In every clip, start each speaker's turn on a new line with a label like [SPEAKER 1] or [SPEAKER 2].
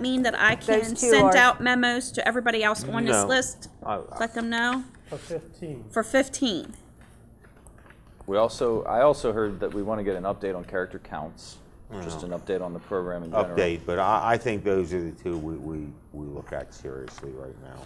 [SPEAKER 1] mean that I can
[SPEAKER 2] two
[SPEAKER 1] send
[SPEAKER 2] are-
[SPEAKER 1] out memos to everybody else on this
[SPEAKER 3] No.
[SPEAKER 1] list?
[SPEAKER 3] I-
[SPEAKER 1] Let them know
[SPEAKER 4] for fifteen.
[SPEAKER 1] for 15.
[SPEAKER 5] We also, I also heard that we want to get an update on character counts, just an update on the program in general.
[SPEAKER 3] Update, but I, I think those are the two we, we, we look at seriously right now.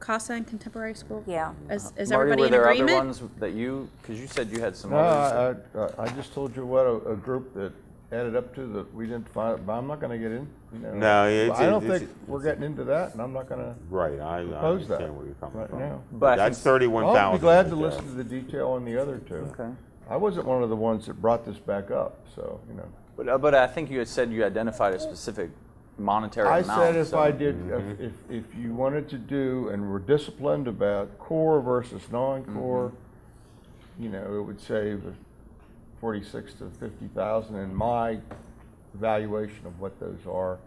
[SPEAKER 1] CASA and Contemporary School?
[SPEAKER 2] Yeah.
[SPEAKER 1] Is, is
[SPEAKER 5] Marty,
[SPEAKER 1] everybody
[SPEAKER 5] were
[SPEAKER 1] in
[SPEAKER 5] there
[SPEAKER 1] agreement?
[SPEAKER 5] other ones that you, because you said you had some
[SPEAKER 6] No, Uh, I, uh,
[SPEAKER 5] others.
[SPEAKER 6] I- I just told you what a, a group that added up to that we didn't find, but I'm not gonna get in, you know.
[SPEAKER 3] No, it's-
[SPEAKER 6] I don't
[SPEAKER 3] it's-
[SPEAKER 6] think we're getting into that, and I'm not gonna,
[SPEAKER 3] Right, I, I
[SPEAKER 6] Propose that
[SPEAKER 3] understand where you're coming
[SPEAKER 6] right
[SPEAKER 3] from.
[SPEAKER 6] now.
[SPEAKER 5] But I
[SPEAKER 3] That's
[SPEAKER 5] think-
[SPEAKER 3] thirty-one thousand.
[SPEAKER 6] I'll be glad to listen to the detail on the other two.
[SPEAKER 5] Okay.
[SPEAKER 6] I wasn't one of the ones that brought this back up, so, you know.
[SPEAKER 5] But, uh, but I think you had said you identified a specific monetary
[SPEAKER 6] I
[SPEAKER 5] amount.
[SPEAKER 6] said if
[SPEAKER 5] so-
[SPEAKER 6] I did, if, if if you wanted to do and were disciplined about core versus non-core, you know, it would save forty-six to fifty thousand in my evaluation of what those are.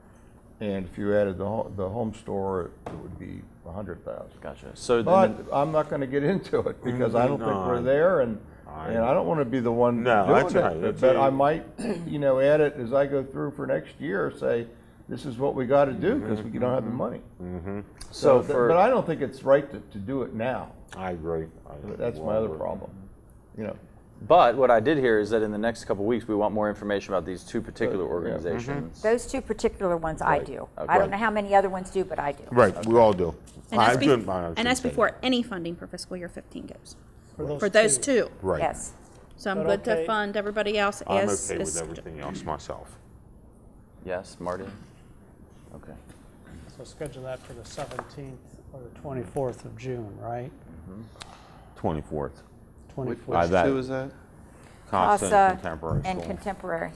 [SPEAKER 6] And if you added the, ho- the home store, it would be a hundred thousand.
[SPEAKER 5] Gotcha. So
[SPEAKER 6] But
[SPEAKER 5] then,
[SPEAKER 6] I'm not gonna get into it because I don't think we're
[SPEAKER 3] No,
[SPEAKER 6] there and,
[SPEAKER 3] I-
[SPEAKER 6] and I don't wanna be the one
[SPEAKER 3] No,
[SPEAKER 6] doing
[SPEAKER 3] that's
[SPEAKER 6] it,
[SPEAKER 3] right.
[SPEAKER 6] but-
[SPEAKER 3] It's
[SPEAKER 6] But
[SPEAKER 3] a-
[SPEAKER 6] I might, you know, add it as I go through for next year, say, this is what we gotta do because we don't have the money.
[SPEAKER 5] so
[SPEAKER 6] th-
[SPEAKER 5] for
[SPEAKER 6] But I don't think it's right to, to do it now.
[SPEAKER 3] I agree. I think
[SPEAKER 6] That's
[SPEAKER 3] we're
[SPEAKER 6] my
[SPEAKER 3] all
[SPEAKER 6] other
[SPEAKER 3] working.
[SPEAKER 6] problem, you know.
[SPEAKER 5] But what I did hear is that in the next couple weeks, we want more information about these two particular organizations.
[SPEAKER 2] Those two particular ones I do. I
[SPEAKER 5] Okay.
[SPEAKER 2] don't know how many other ones do, but I do.
[SPEAKER 3] Right, we all do.
[SPEAKER 1] And that's,
[SPEAKER 3] I
[SPEAKER 1] bef-
[SPEAKER 3] couldn't find out
[SPEAKER 1] and that's
[SPEAKER 3] something.
[SPEAKER 1] before any funding for fiscal year 15 goes, for those two.
[SPEAKER 3] Right.
[SPEAKER 2] Yes.
[SPEAKER 1] So I'm
[SPEAKER 4] But
[SPEAKER 1] good to
[SPEAKER 4] okay.
[SPEAKER 1] fund everybody else
[SPEAKER 3] I'm
[SPEAKER 1] as.
[SPEAKER 3] okay with
[SPEAKER 1] as-
[SPEAKER 3] everything else myself.
[SPEAKER 6] Mm-hmm.
[SPEAKER 5] Yes, Marty? Okay.
[SPEAKER 4] So schedule that for the seventeenth or the twenty-fourth of June, right?
[SPEAKER 3] Twenty-fourth.
[SPEAKER 4] Twenty-fourth.
[SPEAKER 3] two is that? Constant
[SPEAKER 2] CASA
[SPEAKER 3] contemporary
[SPEAKER 2] And
[SPEAKER 3] school.
[SPEAKER 2] contemporary.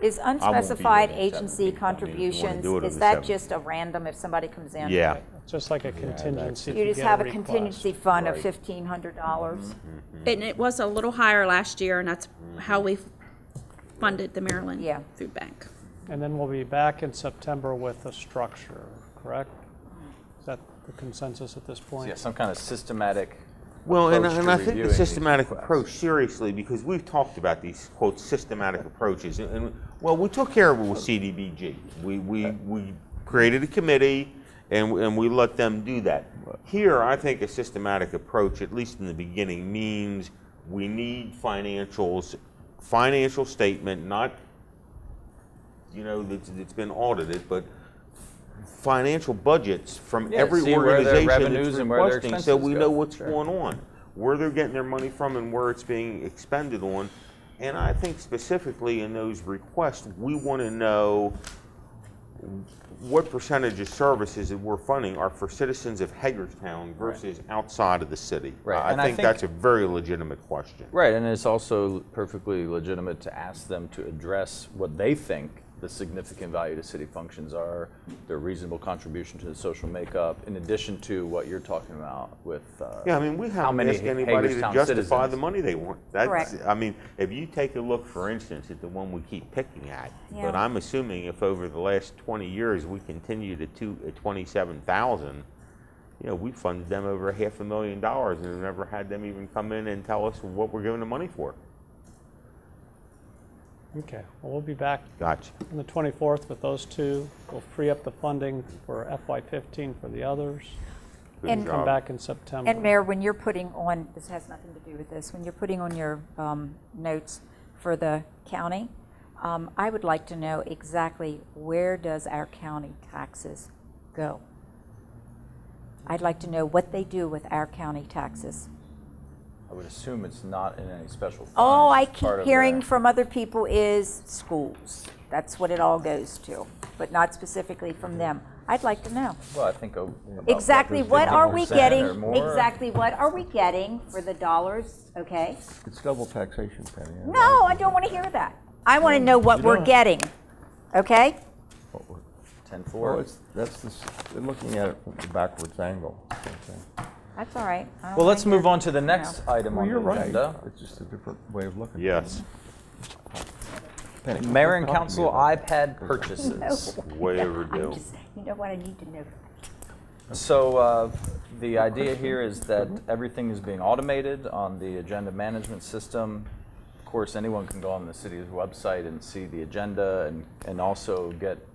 [SPEAKER 2] Is
[SPEAKER 3] here
[SPEAKER 2] unspecified
[SPEAKER 3] at that meeting. I mean,
[SPEAKER 2] agency
[SPEAKER 3] if you wanna do it
[SPEAKER 2] contributions,
[SPEAKER 3] on the
[SPEAKER 2] is that
[SPEAKER 3] 7th.
[SPEAKER 2] just a random if somebody comes in?
[SPEAKER 3] Yeah,
[SPEAKER 4] Just like a contingency. if
[SPEAKER 2] You just
[SPEAKER 4] get
[SPEAKER 2] have a
[SPEAKER 4] request.
[SPEAKER 2] contingency fund of
[SPEAKER 3] Right.
[SPEAKER 2] fifteen hundred
[SPEAKER 3] Mm-hmm.
[SPEAKER 2] dollars?
[SPEAKER 1] And it was a little higher last year, and that's how we funded the Maryland
[SPEAKER 2] Yeah.
[SPEAKER 1] Food Bank.
[SPEAKER 4] And then we'll be back in September with a structure, correct? Is that the consensus at this point?
[SPEAKER 5] Yeah, some kind of systematic.
[SPEAKER 3] Well, and,
[SPEAKER 5] approach
[SPEAKER 3] and
[SPEAKER 5] to
[SPEAKER 3] I think
[SPEAKER 5] reviewing
[SPEAKER 3] the
[SPEAKER 5] these
[SPEAKER 3] systematic
[SPEAKER 5] requests.
[SPEAKER 3] approach, seriously, because we've talked about these quote systematic approaches, and, and well, we took care of it with CDBG. We we, we created a committee, and and we let them do that. Here, I think a systematic approach, at least in the beginning, means we need financials, financial statement, not you know that's, that's been audited, but financial budgets from
[SPEAKER 5] Yeah,
[SPEAKER 3] every
[SPEAKER 5] see where their
[SPEAKER 3] organization
[SPEAKER 5] revenues
[SPEAKER 3] that's
[SPEAKER 5] and where their
[SPEAKER 3] requesting, so
[SPEAKER 5] expenses
[SPEAKER 3] we
[SPEAKER 5] go.
[SPEAKER 3] know what's
[SPEAKER 5] Sure.
[SPEAKER 3] going on, where they're getting their money from, and where it's being expended on. And I think specifically in those requests, we want to know what percentage of services that we're funding are for citizens of Hagerstown versus outside of the city.
[SPEAKER 5] Right,
[SPEAKER 3] I,
[SPEAKER 5] and I
[SPEAKER 3] think
[SPEAKER 5] think-
[SPEAKER 3] that's a very legitimate question.
[SPEAKER 5] Right, and it's also perfectly legitimate to ask them to address what they think the significant value to city functions are, their reasonable contribution to the social makeup, in addition to what you're talking about with. uh,
[SPEAKER 3] Yeah, I mean, we
[SPEAKER 5] how
[SPEAKER 3] haven't
[SPEAKER 5] many
[SPEAKER 3] asked anybody to
[SPEAKER 5] Hagerstown
[SPEAKER 3] justify
[SPEAKER 5] citizens-
[SPEAKER 3] the money they want. That's,
[SPEAKER 2] Correct.
[SPEAKER 3] I mean, if you take a look, for instance, at the one we keep picking at, but
[SPEAKER 2] Yeah.
[SPEAKER 3] I'm assuming if over the last 20 years we continue to two, uh, 27,000, you know, we funded them over half a million dollars and have never had them even come in and tell us what we're giving the money for.
[SPEAKER 4] Okay, well, we'll be back
[SPEAKER 3] Gotcha.
[SPEAKER 4] on the 24th with those two. We'll free up the funding for FY15 for the others.
[SPEAKER 3] Good
[SPEAKER 2] And- Come
[SPEAKER 3] job.
[SPEAKER 4] Come back in September.
[SPEAKER 2] And Mayor, when you're putting on, this has nothing to do with this, when you're putting on your um, notes for the county, um, I would like to know exactly where does our county taxes go? I'd like to know what they do with our county taxes.
[SPEAKER 5] I would assume it's not in any special. fund.
[SPEAKER 2] All Oh, I
[SPEAKER 5] It's part
[SPEAKER 2] keep
[SPEAKER 5] of
[SPEAKER 2] hearing
[SPEAKER 5] the-
[SPEAKER 2] from other people is schools. That's what it all goes to, but not specifically from them. I'd like to know.
[SPEAKER 5] Well, I think. o- about
[SPEAKER 2] Exactly what are we
[SPEAKER 5] 50%
[SPEAKER 2] getting?
[SPEAKER 5] or more.
[SPEAKER 2] Exactly what are we getting for the dollars, okay?
[SPEAKER 6] It's double taxation, Penny. I
[SPEAKER 2] No, I don't want to hear that. I want to know what
[SPEAKER 6] You
[SPEAKER 2] we're
[SPEAKER 6] don't.
[SPEAKER 2] getting, okay?
[SPEAKER 6] like what we're-
[SPEAKER 5] Ten
[SPEAKER 6] Well,
[SPEAKER 5] four.
[SPEAKER 6] it's, that's the, s- they're looking at it from the backwards angle. I think.
[SPEAKER 2] That's all right. I don't
[SPEAKER 5] Well, let's
[SPEAKER 2] think
[SPEAKER 5] move
[SPEAKER 2] that-
[SPEAKER 5] on to the next item
[SPEAKER 6] Well,
[SPEAKER 5] on the
[SPEAKER 6] you're right.
[SPEAKER 5] agenda.
[SPEAKER 6] It's just a different way of looking. at
[SPEAKER 3] Yes.
[SPEAKER 6] it. Penny,
[SPEAKER 5] Mayor and
[SPEAKER 6] talk to me
[SPEAKER 5] council
[SPEAKER 6] about
[SPEAKER 5] iPad purchases.
[SPEAKER 3] Way
[SPEAKER 2] No,
[SPEAKER 3] overdue.
[SPEAKER 2] I'm just- You know what, I need to know.
[SPEAKER 5] So uh, the idea here is that everything is being automated on the agenda management system. Of course, anyone can go on the city's website and see the agenda and, and also get